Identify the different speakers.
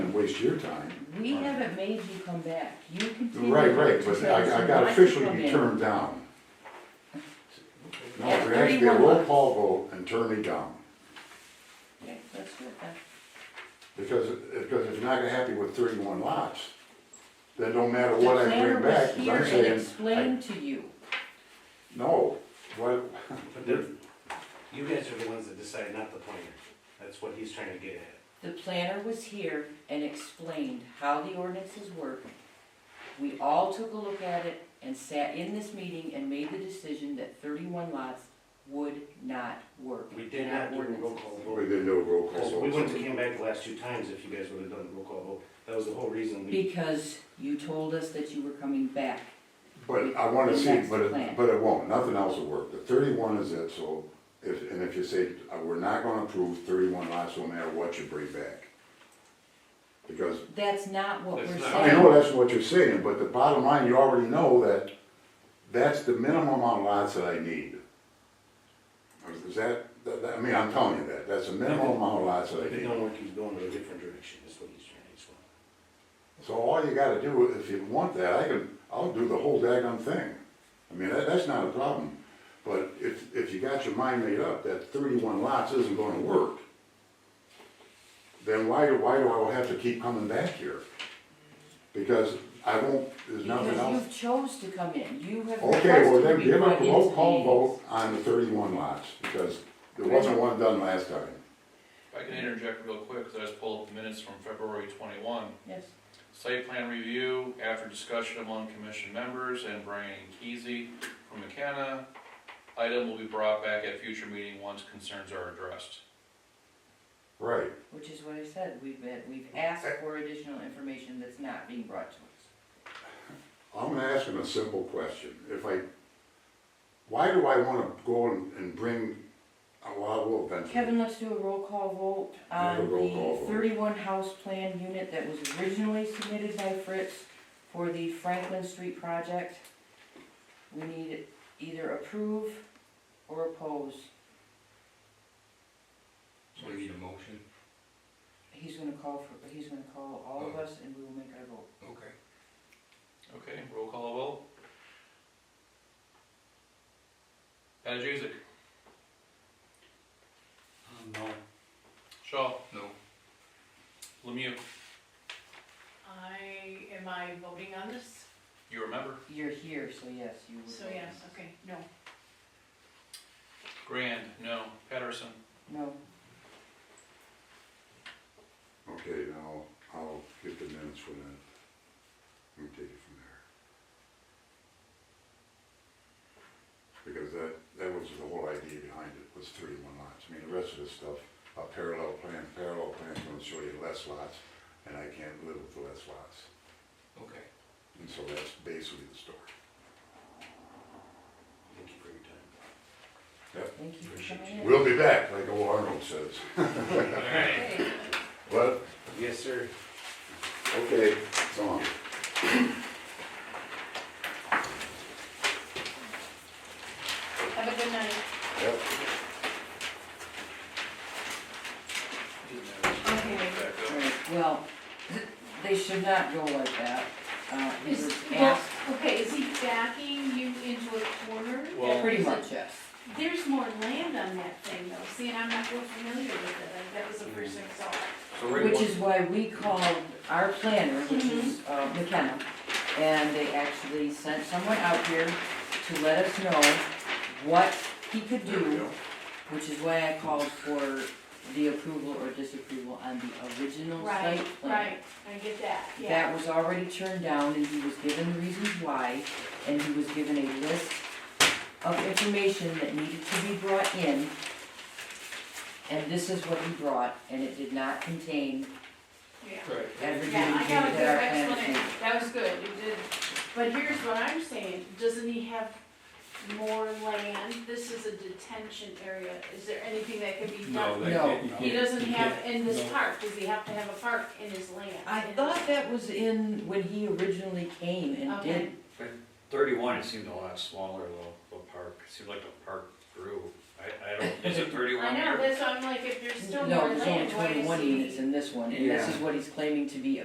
Speaker 1: waste your time.
Speaker 2: We haven't made you come back, you continue.
Speaker 1: Right, right,
Speaker 2: to
Speaker 1: but
Speaker 2: tell us
Speaker 1: I, I
Speaker 2: you
Speaker 1: got
Speaker 2: want to come
Speaker 1: officially
Speaker 2: in.
Speaker 1: be turned down. No,
Speaker 2: Yeah,
Speaker 1: there has to be a
Speaker 2: 31
Speaker 1: roll
Speaker 2: months.
Speaker 1: call vote and turn me down,
Speaker 2: Okay, let's do it then.
Speaker 1: because, because if you're not happy with thirty-one lots, then don't matter what I
Speaker 2: The
Speaker 1: bring
Speaker 2: planner was
Speaker 1: back, 'cause I'm
Speaker 2: here
Speaker 1: saying.
Speaker 2: and
Speaker 1: I-
Speaker 2: explained to you.
Speaker 1: No, what,
Speaker 3: But the- you guys are the ones that decide, not the planner. That's what he's trying to get at.
Speaker 2: The planner was here and explained how the ordinances work. We all took a look at it and sat in this meeting and made the decision that thirty-one lots would not work.
Speaker 3: We did
Speaker 2: in
Speaker 3: not
Speaker 2: our
Speaker 3: do a roll call
Speaker 2: ordinances.
Speaker 1: we
Speaker 3: vote.
Speaker 1: didn't do a roll call
Speaker 3: Because we
Speaker 1: vote.
Speaker 3: wouldn't have came back the last two times if you guys would have done a roll call vote. That was the whole reason we,
Speaker 2: Because you told us that you were coming back.
Speaker 1: But I wanna see,
Speaker 2: That's the
Speaker 1: but
Speaker 2: plan.
Speaker 1: it, but it won't, nothing else will work, the thirty-one is it, so, if, and if you say, uh, we're not gonna approve thirty-one lots, no matter what you bring back. Because,
Speaker 2: That's not what
Speaker 3: That's
Speaker 2: we're
Speaker 3: not-
Speaker 2: saying.
Speaker 1: I know that's what you're saying, but the bottom line, you already know that, that's the minimum amount of lots that I need. Is that, that, that- I mean, I'm telling you that, that's the minimum amount of lots that I
Speaker 3: we
Speaker 1: need.
Speaker 3: don't like he's going in a different direction, is what he's trying to explain.
Speaker 1: So all you gotta do, if you want that, I can, I'll do the whole daggone thing. I mean, that, that's not a problem. But if, if you got your mind made up that thirty-one lots isn't gonna work, then why, why do I have to keep coming back here? Because I won't, there's nothing
Speaker 2: Because
Speaker 1: else.
Speaker 2: you've chose to come in, you have requested
Speaker 1: Okay, well
Speaker 2: to
Speaker 1: then
Speaker 2: be
Speaker 1: give
Speaker 2: brought
Speaker 1: a
Speaker 2: into
Speaker 1: roll call
Speaker 2: meetings.
Speaker 1: vote on the thirty-one lots, because there wasn't one done last time.
Speaker 4: If I can interject real quick, because I just pulled up the minutes from February twenty-one.
Speaker 2: Yes,
Speaker 4: Site plan review, after discussion among commission members and Brian Keasy from McKenna, item will be brought back at future meeting once concerns are addressed.
Speaker 1: Right.
Speaker 2: which is what I said, we've been, we've asked
Speaker 1: Eh.
Speaker 2: for additional information that's not being brought to us.
Speaker 1: I'm gonna ask him a simple question. If I, why do I wanna go and, and bring, uh, well, I will eventually.
Speaker 2: Kevin, let's do a roll call vote
Speaker 1: Do
Speaker 2: on
Speaker 1: a roll call
Speaker 2: the
Speaker 1: vote.
Speaker 2: thirty-one house plan unit that was originally submitted by Fritz for the Franklin Street project. We need either approve or oppose,
Speaker 5: So we need a motion?
Speaker 2: he's gonna call for, he's gonna call all of us and we will make our vote.
Speaker 5: Okay.
Speaker 4: Okay, roll call vote. Patajuzic,
Speaker 5: Um, No.
Speaker 4: Shaw,
Speaker 5: No.
Speaker 4: Lemieux,
Speaker 6: I, am I voting on this?
Speaker 4: you remember?
Speaker 2: You're here, so yes, you would.
Speaker 6: So
Speaker 2: vote.
Speaker 6: yes, okay, no.
Speaker 4: Grand, no. Patterson,
Speaker 2: No,
Speaker 1: Okay, now, I'll get the minutes for that. Let me take it from there. Because that, that was the whole idea behind it, was thirty-one lots. I mean, the rest of this stuff, a parallel plan, parallel plan's gonna show you less lots, and I can't live with less lots.
Speaker 5: Okay.
Speaker 1: And so that's basically the story.
Speaker 3: Thank you for your time.
Speaker 2: thank you for coming in.
Speaker 1: We'll be back, like old Arnold says.
Speaker 6: Okay.
Speaker 1: But,
Speaker 3: Yes, sir.
Speaker 1: okay, it's on.
Speaker 6: Have a good night.
Speaker 1: Yep.
Speaker 6: Okay.
Speaker 4: back up.
Speaker 2: Right, Well, th- they should not go like that. Uh, he
Speaker 6: Is,
Speaker 2: was
Speaker 6: well,
Speaker 2: asked,
Speaker 6: okay, is he backing you into a corner?
Speaker 4: Well-
Speaker 2: pretty much, yes.
Speaker 6: There's more land on that thing though, see, and I'm not real familiar with it, Like, that was the first thing I saw.
Speaker 2: Mm-hmm.
Speaker 4: So right
Speaker 2: Which
Speaker 4: one,
Speaker 2: is why we called our planner, which is
Speaker 6: Mm-hmm.
Speaker 2: uh, McKenna, and they actually sent someone out here to let us know what he could
Speaker 1: There we
Speaker 2: do,
Speaker 1: go.
Speaker 2: which is why I called for the approval or disapproval on the original
Speaker 6: Right,
Speaker 2: site plan.
Speaker 6: right, I get that, yeah.
Speaker 2: that was already turned down and he was given the reasons why, and he was given a list of information that needed to be brought in. And this is what he brought, and it did not contain
Speaker 6: Yeah.
Speaker 5: Right.
Speaker 2: everything
Speaker 6: Yeah, I got a good
Speaker 2: that our plans
Speaker 6: explanation,
Speaker 2: needed.
Speaker 6: that was good, you did, but here's what I'm saying, doesn't he have more land? This is a detention area, is there anything that can be done?
Speaker 2: No.
Speaker 6: He doesn't have, in this park, does he have to have a park in his land?
Speaker 2: I
Speaker 6: In his-
Speaker 2: thought that was in when he originally came and
Speaker 6: Okay.
Speaker 2: did,
Speaker 7: Thirty-one, it seemed a lot smaller, little, little park, it seemed like the park grew,
Speaker 4: I, I don't,
Speaker 5: Is it
Speaker 6: I
Speaker 5: thirty-one
Speaker 6: know,
Speaker 5: here?
Speaker 6: that's why I'm like, if there's still more
Speaker 2: No, there's only
Speaker 6: land, why is he?
Speaker 2: twenty-one units in this one, and this is what he's claiming to be